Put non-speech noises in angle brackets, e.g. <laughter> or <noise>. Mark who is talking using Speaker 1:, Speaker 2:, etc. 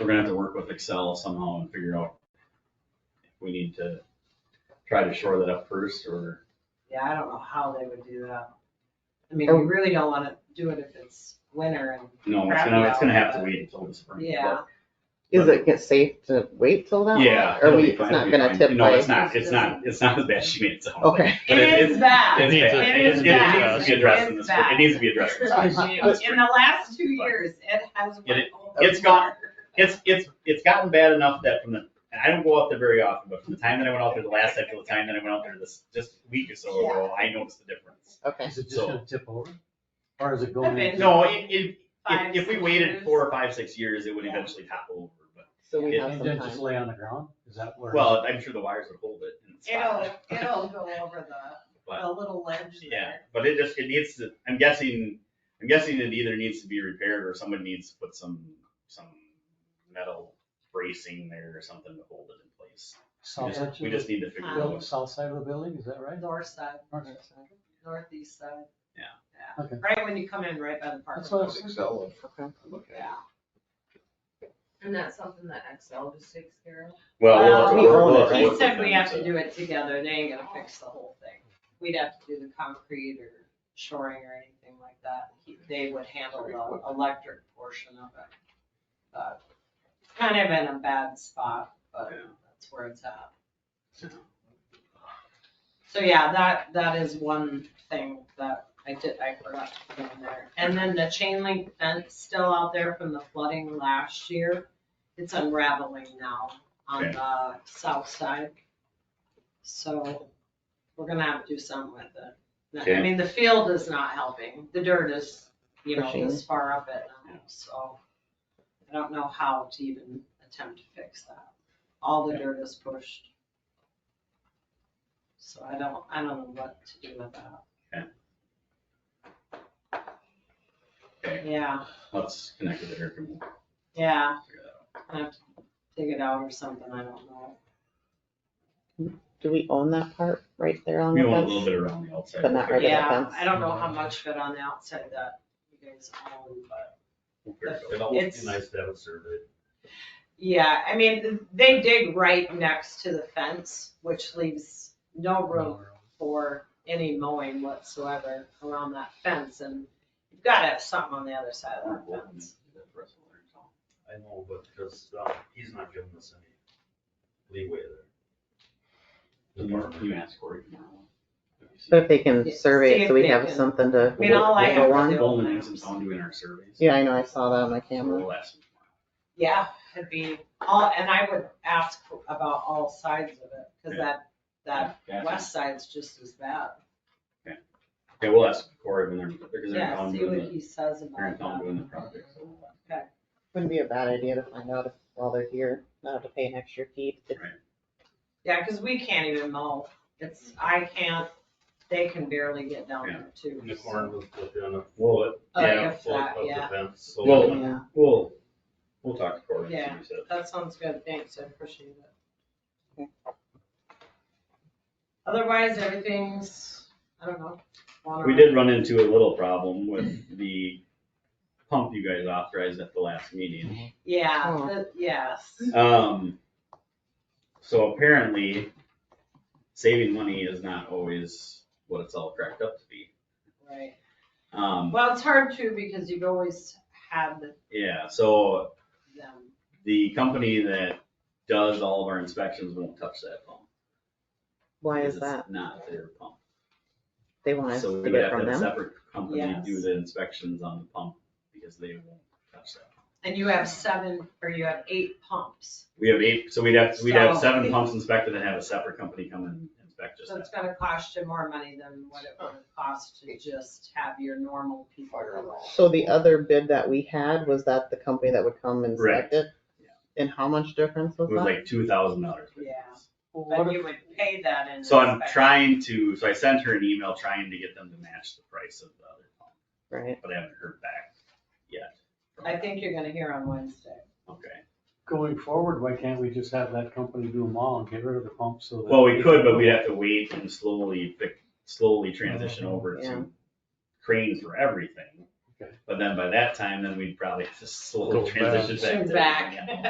Speaker 1: we're gonna have to work with Excel somehow and figure out if we need to try to shore that up first or,
Speaker 2: Yeah, I don't know how they would do that. I mean,
Speaker 3: Oh.
Speaker 2: you really don't wanna do it if it's winter and,
Speaker 1: no, it's gonna, it's gonna have to wait until the spring. but-
Speaker 2: yeah.
Speaker 4: Is it get safe to wait till that?
Speaker 1: Yeah.
Speaker 4: Or
Speaker 1: it'll
Speaker 4: we,
Speaker 1: be
Speaker 4: it's
Speaker 1: fine,
Speaker 4: not
Speaker 1: it'll be
Speaker 4: gonna
Speaker 1: fine.
Speaker 4: tip
Speaker 1: No,
Speaker 4: by?
Speaker 1: it's not, it's not, it's not as bad as she made it sound.
Speaker 4: Okay.
Speaker 1: But
Speaker 2: It is bad.
Speaker 1: It's
Speaker 3: It
Speaker 1: bad. It
Speaker 3: needs
Speaker 1: is
Speaker 3: to-
Speaker 1: bad.
Speaker 3: it
Speaker 1: It needs
Speaker 3: is
Speaker 1: to be addressed in
Speaker 2: bad.
Speaker 1: this, it needs to be addressed. in this- this
Speaker 2: In
Speaker 1: spring.
Speaker 2: the last two years, it has.
Speaker 1: It-
Speaker 2: went over.
Speaker 1: it's gone. It's, it's, it's gotten bad enough that from the, and I don't go out there very often, but from the time that I went out there the last time to the time that I went out there this, just a week or so ago, I noticed the difference.
Speaker 4: Okay,
Speaker 3: Is it just
Speaker 1: So-
Speaker 3: gonna tip over? Or is it
Speaker 2: I
Speaker 3: going?
Speaker 2: mean-
Speaker 3: into-
Speaker 1: No, it, it,
Speaker 2: Five,
Speaker 1: if, if we
Speaker 2: six years.
Speaker 1: waited four or five, six years, it would
Speaker 2: Yeah.
Speaker 1: eventually topple over, but.
Speaker 4: so we
Speaker 1: It-
Speaker 4: have
Speaker 3: And
Speaker 4: some
Speaker 3: then just
Speaker 4: time.
Speaker 3: lay on the ground? Is that where?
Speaker 1: Well, I'm sure the wires would hold it in the
Speaker 2: It'll,
Speaker 1: spot. <laughs>
Speaker 2: it'll go over the,
Speaker 1: But-
Speaker 2: the little ledge
Speaker 1: Yeah,
Speaker 2: there.
Speaker 1: but it just, it needs to, I'm guessing, I'm guessing it either needs to be repaired or somebody needs to put some, some metal bracing there or something to hold it in place. We
Speaker 3: South
Speaker 1: just-
Speaker 3: section
Speaker 1: We
Speaker 3: of
Speaker 1: just
Speaker 3: the
Speaker 1: need to figure
Speaker 2: Um,
Speaker 1: it
Speaker 3: building,
Speaker 1: out.
Speaker 3: south side of the building, is that right?
Speaker 2: North side,
Speaker 3: North side.
Speaker 2: northeast side.
Speaker 1: Yeah.
Speaker 2: Yeah,
Speaker 3: Okay.
Speaker 2: right when you come in, right by the park.
Speaker 3: That's what I was thinking.
Speaker 5: Excel
Speaker 4: Okay.
Speaker 5: and look at
Speaker 2: Yeah.
Speaker 6: And that's something that Excel just takes care of?
Speaker 1: Well, we'll have to work-
Speaker 2: Well,
Speaker 1: we'll have to work
Speaker 2: He
Speaker 1: with
Speaker 2: said we
Speaker 1: them,
Speaker 2: have
Speaker 1: so-
Speaker 2: to do it together, they ain't gonna fix the whole thing. We'd have to do the concrete or shoring or anything like that. He- They would handle the electric portion of it. But kind of in a bad spot, but that's where it's at. So yeah, that, that is one thing that I did, I forgot to put in there. And then the chain link fence still out there from the flooding last year, it's unraveling now on
Speaker 1: Okay.
Speaker 2: the south side. So we're gonna have to do something with it. I
Speaker 1: Okay.
Speaker 2: mean, the field is not helping, the dirt is, you know,
Speaker 4: Pushing.
Speaker 2: this far up it now, so I don't know how to even attempt to fix that. All the dirt is pushed. So I don't, I don't know what to do with that.
Speaker 1: Okay,
Speaker 2: Yeah,
Speaker 1: Let's connect with the air conditioner.
Speaker 2: yeah, I have to dig it out or something, I don't know.
Speaker 4: Do we own that part right there on the
Speaker 1: We want a little
Speaker 4: fence?
Speaker 1: bit around the outside.
Speaker 4: Um, But not right at the
Speaker 2: Yeah,
Speaker 4: fence.
Speaker 2: I don't know how much of it on the outside that you guys own, but
Speaker 1: We'll figure it out.
Speaker 7: It'd almost
Speaker 2: It's-
Speaker 7: be nice to have a survey.
Speaker 2: yeah, I mean, they dig right next to the fence, which leaves no room for any mowing whatsoever around that fence, and you've gotta have something on the other side of that fence.
Speaker 7: I know, but because, um, he's not giving us any leeway there.
Speaker 1: Can you ask Cory tomorrow?
Speaker 4: But if they can
Speaker 2: Yeah, see
Speaker 4: survey it
Speaker 2: if
Speaker 4: so we
Speaker 2: they
Speaker 4: have
Speaker 2: can-
Speaker 4: something to.
Speaker 2: I mean, all I have
Speaker 4: go
Speaker 2: to
Speaker 4: on.
Speaker 2: do-
Speaker 1: Golden has some fun doing our surveys.
Speaker 4: Yeah, I know, I saw that on my camera.
Speaker 1: We'll ask him tomorrow.
Speaker 2: Yeah, it'd be, all, and I would ask for- about all sides of it, cause that, that
Speaker 1: Yeah,
Speaker 2: west side's just as bad.
Speaker 1: Okay, we'll ask Cory when they're, because they're in
Speaker 2: Yeah,
Speaker 1: town
Speaker 2: see
Speaker 1: doing
Speaker 2: what
Speaker 1: the,
Speaker 2: he says
Speaker 1: they're in
Speaker 2: about
Speaker 1: town
Speaker 2: that.
Speaker 1: doing the project, so. we'll-
Speaker 4: Wouldn't be a bad idea to find out if, while they're here, not have to pay an extra fee. to-
Speaker 2: Yeah, cause we can't even mow, it's, I can't, they can barely get down there too.
Speaker 7: And the corn was within a
Speaker 1: Well,
Speaker 7: foot,
Speaker 2: Oh,
Speaker 1: yeah,
Speaker 2: if
Speaker 7: foot
Speaker 2: that,
Speaker 7: of the
Speaker 2: yeah,
Speaker 7: fence, so.
Speaker 1: Well,
Speaker 4: Yeah.
Speaker 1: we'll, we'll talk to Cory. and see what he says.
Speaker 2: that sounds good, thanks, I appreciate it.
Speaker 4: Okay.
Speaker 2: Otherwise, everything's, I don't know. on
Speaker 1: We
Speaker 2: our-
Speaker 1: did run into a little problem with the pump you guys authorized at the last meeting.
Speaker 2: Yeah,
Speaker 4: Oh.
Speaker 2: the- yes.
Speaker 1: Um, so apparently, saving money is not always what it's all cracked up to be.
Speaker 2: Right,
Speaker 1: Um,
Speaker 2: well, it's hard too, because you've always had
Speaker 1: yeah, so
Speaker 2: them,
Speaker 1: the company that does all of our inspections won't touch that pump.
Speaker 4: Why
Speaker 1: because
Speaker 4: is
Speaker 1: it's
Speaker 4: that?
Speaker 1: Not their pump.
Speaker 4: They want us
Speaker 1: So
Speaker 4: to
Speaker 1: we would
Speaker 4: get
Speaker 1: have to
Speaker 4: from
Speaker 1: have a
Speaker 4: them?
Speaker 1: separate company do
Speaker 2: Yes.
Speaker 1: the inspections on the pump because they won't touch that.
Speaker 2: and you have seven, or you have eight pumps,
Speaker 1: We have eight, so we'd have, we'd have
Speaker 2: So-
Speaker 1: seven pumps inspected and have a separate company come and inspect just
Speaker 2: so it's
Speaker 1: that.
Speaker 2: gonna cost you more money than what it would cost to just have your normal people. go.
Speaker 4: So the other bid that we had, was that the company that would come and select it?
Speaker 1: Yeah.
Speaker 4: And how much difference was
Speaker 1: It was
Speaker 4: that?
Speaker 1: like two thousand dollars.
Speaker 2: Yeah.
Speaker 3: What
Speaker 2: But
Speaker 3: if,
Speaker 2: you would pay that in.
Speaker 1: So I'm
Speaker 2: respect-
Speaker 1: trying to, so I sent her an email trying to get them to match the price of the other pump,
Speaker 4: Right,
Speaker 1: but I haven't heard back yet.
Speaker 2: I think you're gonna hear on Wednesday.
Speaker 1: Okay,
Speaker 3: going forward, why can't we just have that company do them all and get rid of the pump so that?
Speaker 1: well, we could, but we'd have to wait and slowly, pick- slowly transition over
Speaker 4: Yeah.
Speaker 1: to cranes for everything.
Speaker 3: Okay.
Speaker 1: But then by that time, then we'd probably just
Speaker 7: Go
Speaker 1: slowly
Speaker 7: back.
Speaker 1: transition back. to
Speaker 2: Back.
Speaker 1: everything else.